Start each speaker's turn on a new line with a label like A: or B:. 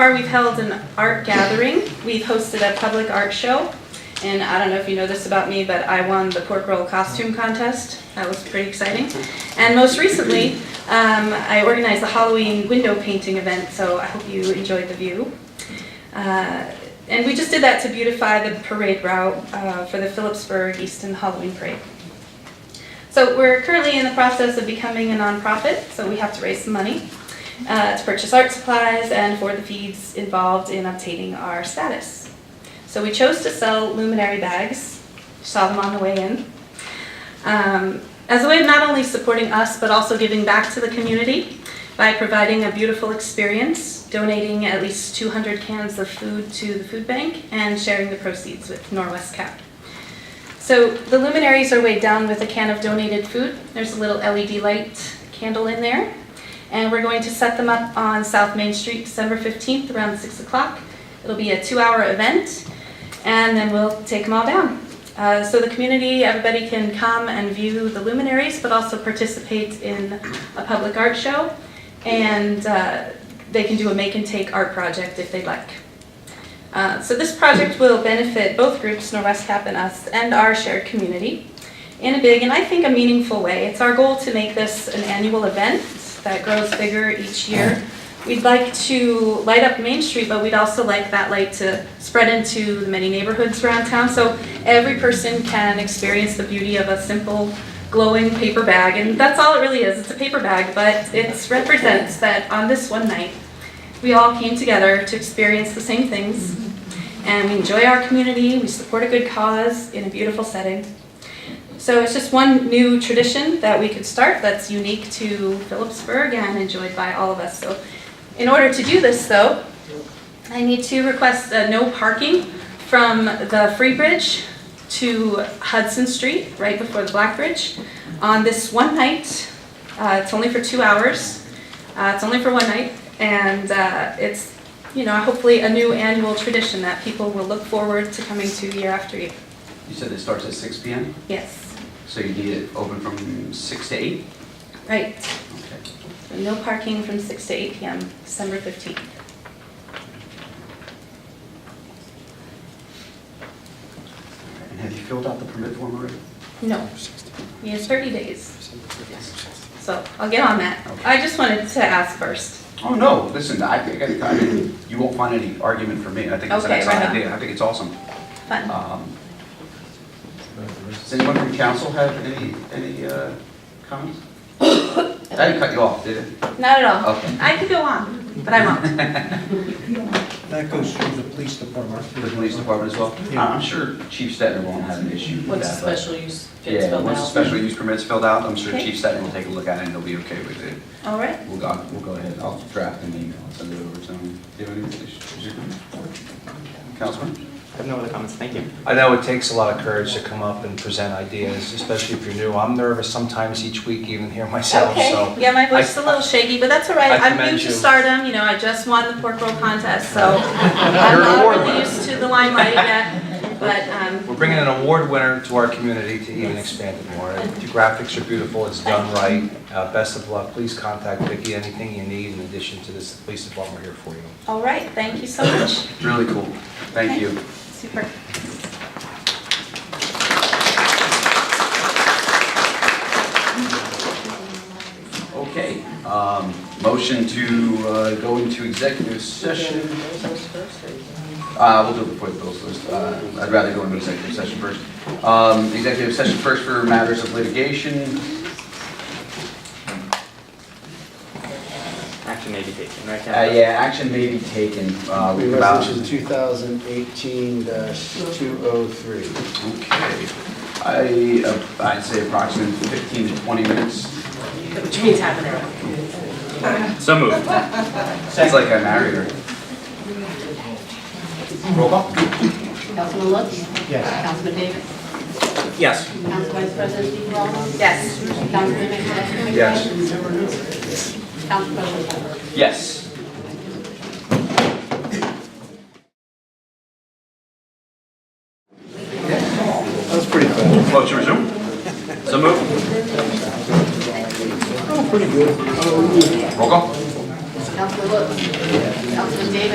A: far, we've held an art gathering. We've hosted a public art show. And I don't know if you know this about me, but I won the pork roll costume contest. That was pretty exciting. And most recently, um, I organized the Halloween window painting event, so I hope you enjoyed the view. Uh, and we just did that to beautify the parade route uh, for the Phillipsburg Easton Halloween Parade. So we're currently in the process of becoming a nonprofit, so we have to raise some money uh, to purchase art supplies and for the fees involved in obtaining our status. So we chose to sell luminary bags, saw them on the way in, um, as a way of not only supporting us but also giving back to the community by providing a beautiful experience, donating at least 200 cans of food to the food bank, and sharing the proceeds with Norwest Cap. So the luminaries are weighed down with a can of donated food. There's a little LED light candle in there. And we're going to set them up on South Main Street December 15th around 6 o'clock. It'll be a two hour event, and then we'll take them all down. Uh, so the community, everybody can come and view the luminaries, but also participate in a public art show. And uh, they can do a make and take art project if they'd like. Uh, So this project will benefit both groups, Norwest Cap and us, and our shared community in a big and I think a meaningful way. It's our goal to make this an annual event that grows bigger each year. We'd like to light up Main Street, but we'd also like that light to spread into the many neighborhoods around town so every person can experience the beauty of a simple glowing paper bag. And that's all it really is. It's a paper bag, but it represents that on this one night, we all came together to experience the same things. And we enjoy our community, we support a good cause in a beautiful setting. So it's just one new tradition that we could start that's unique to Phillipsburg and enjoyed by all of us. So in order to do this though, I need to request a no parking from the Free Bridge to Hudson Street, right before the Black Bridge, on this one night. Uh, it's only for two hours. Uh, it's only for one night, and uh, it's, you know, hopefully a new annual tradition that people will look forward to coming to year after year.
B: You said it starts at six P M,
A: Yes,
B: so you need it open from six to eight?
A: right.
B: Okay.
A: So No parking from 6 to 8 p.m., December 15th.
B: And have you filled out the permit form already?
A: No, we have 30 days,
B: Yes.
A: so I'll get on that.
B: Okay.
A: I just wanted to ask first.
B: Oh, no, listen, I think, I mean, you won't find any argument from me. I think it's an
A: Okay, right
B: excellent
A: on.
B: idea. I think it's awesome.
A: Fun.
B: Um, Does anyone from council have any, any uh, comments? I didn't cut you off, did it?
A: Not at
C: Oh.
A: all.
B: Okay.
A: I could go on, but I won't.
D: That goes through the police department.
B: The police department as well?
D: Yeah.
B: I'm sure Chief Stetner won't have an issue with that.
C: Once the
B: but-
C: special use gets
B: Yeah,
C: filled
B: once the
C: out.
B: special use permit's filled out, I'm sure
A: Okay.
B: Chief Stetner will take a look at it and he'll be okay with it.
A: All right,
B: We'll go, we'll go ahead, I'll draft an email and send it over to him. Do you have any issues? Councilman?
E: I have no other comments, thank you.
F: I know it takes a lot of courage to come up and present ideas, especially if you're new. I'm nervous sometimes each week even here myself,
A: okay.
F: so.
A: Yeah, my voice is a little shaky, but that's all right.
F: I
A: I'm
F: commend
A: new to
F: you.
A: stardom, you know, I just won the pork roll contest, so I'm
F: You're an
A: not
F: award
A: really
F: winner.
A: used to the limelight yet, but, um,
F: We're bringing an award winner to our community to even expand it more. And The graphics are beautiful, it's done right. Uh, Best of luck, please contact Vicki, anything you need in addition to this, the police department, we're here for you.
A: all right, thank you so much.
B: Really cool. Thank you.
A: Super.
B: Okay, um, motion to uh, go into executive session. Uh, we'll do it before the bills list. Uh, I'd rather go into executive session first. Um, executive session first for matters of litigation.
E: Action may be taken, right?
B: Uh, yeah, action may be taken, uh,
G: We
B: with about.
G: Resolution 2018-203.
B: Okay, I, uh, I'd say approximately fifteen to twenty minutes.
C: Which means half an hour.
E: So moved.
B: It's like I married her. Roll call?
H: Councilman Lutz?
D: Yes.
H: Councilman Davis?
E: Yes.
H: Council Vice President Steve Ballmer?
A: Yes.
H: Councilman Nicolak?
B: Yes.
H: Council President Ballmer?
B: Yes.